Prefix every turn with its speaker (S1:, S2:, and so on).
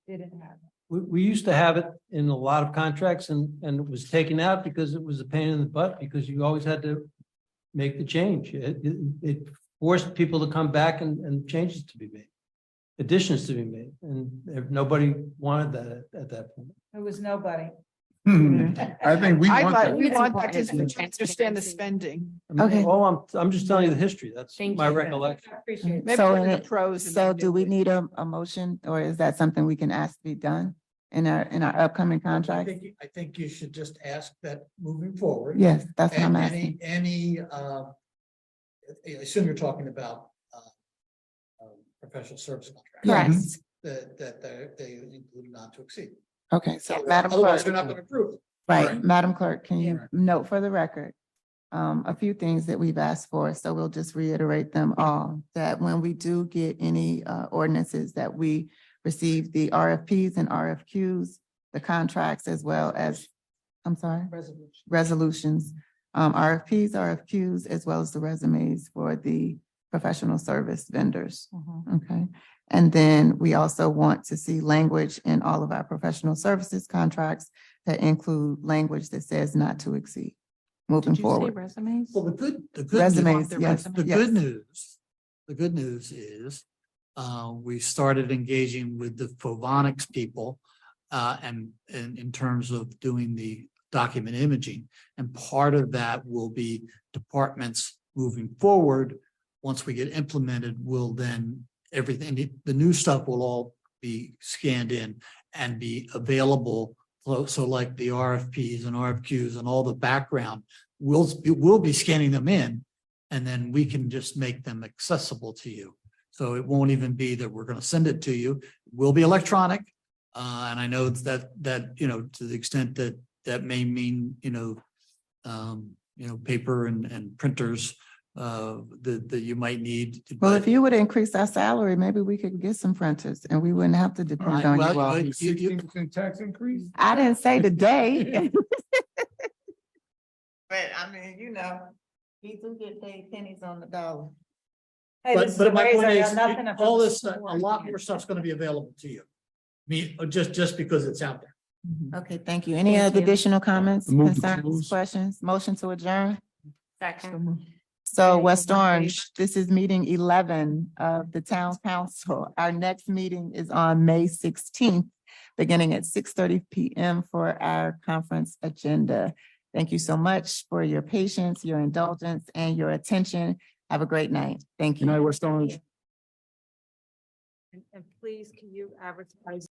S1: didn't have.
S2: We, we used to have it in a lot of contracts and, and it was taken out because it was a pain in the butt, because you always had to make the change. It, it- it forced people to come back and, and changes to be made, additions to be made, and if nobody wanted that at, at that point.
S1: It was nobody.
S3: Hmm. I think we
S4: I'd
S3: want
S4: like,
S3: that.
S4: we
S5: It's
S4: want
S5: important
S4: participants to
S5: for
S4: understand the
S5: transparency.
S4: spending.
S2: I mean,
S5: Okay.
S2: All I'm, I'm just telling you the history. That's
S5: Thank
S2: my
S5: you.
S2: recollection.
S1: I Appreciate it.
S4: Maybe
S5: So
S4: put in
S5: in
S4: the
S5: it-
S4: pros. and
S5: So
S4: then
S5: do we
S4: get-
S5: need a, a motion or is that something we can ask to be done in our, in our upcoming
S6: I
S5: contracts?
S6: think, you- I think you should just ask that moving forward.
S5: Yes, that's what I'm
S6: a-
S5: asking.
S6: Any, any, uh, I assume you're talking about, uh, um, professional service contract.
S5: Correct.
S6: That, that, that they include not to exceed.
S5: Okay, so
S6: So
S5: Madam Clerk,
S6: Otherwise, they're not gonna approve. it.
S5: right,
S6: Correct.
S5: Madam Clerk, can you
S6: Yeah.
S5: note for the record? Um, a few things that we've asked for, so we'll just reiterate them all, that when we do get any, uh, ordinances that we receive the RFPs and RFQs, the contracts as well as, I'm sorry?
S2: Mm-hmm.
S4: Resolution.
S5: resolutions, um, RFPs, RFQs, as well as the resumes for the professional service vendors.
S4: Mhm.
S5: Okay. And then we also want to see language in all of our professional services contracts that include language that says not to exceed moving
S4: Did you say
S5: forward.
S4: resumes?
S6: Well, the good, the good. news-
S5: Resumes,
S4: their
S5: yes,
S6: The
S5: yes.
S6: good news, the good news is, uh, we started engaging with the Phobonics people. Uh, and, and in terms of doing the document imaging. And part of that will be departments moving forward. Once we get implemented, will then everything, the- the new stuff will all be scanned in and be available. So, so like the RFPs and RFQs and all the background, we'll, we'll be scanning them in. And then we can just make them accessible to you. So it won't even be that we're gonna send it to you. It Will be electronic. Uh, and I know that, that, you know, to the extent that, that may mean, you know, um, you know, paper and, and printers, uh, that, that you might need.
S5: Well,
S6: but-
S5: if you would increase our salary, maybe we could get some printers and we wouldn't have to depend
S6: Right,
S5: on
S6: well,
S5: you all.
S6: but you- you-
S3: Sixteen percent tax increase?
S5: I didn't say today.
S4: But I mean, you know, we do get paid pennies on the dollar.
S1: Hey, this is
S6: But, but
S1: a
S6: my
S1: raise,
S6: point
S1: I
S6: is,
S1: got nothing
S6: it-
S1: about
S6: all
S1: this
S6: this, stuff- a
S1: before.
S6: lot more stuff's gonna be available to you. Me, uh, just, just because it's out there.
S5: Okay, thank you. Any
S4: Thank
S5: other
S4: you.
S5: additional comments,
S3: Move to
S5: concerns,
S3: close.
S5: questions, motion to adjourn?
S4: Second.
S5: So
S4: Okay,
S5: West
S4: all in favor?
S5: Orange, this is meeting eleven of the town council. Our next meeting is on May sixteenth, beginning at six thirty PM for our conference agenda. Thank you so much for your patience, your indulgence, and your attention. Have a great night. Thank you.
S3: West Orange.
S1: And- And please, can you advertise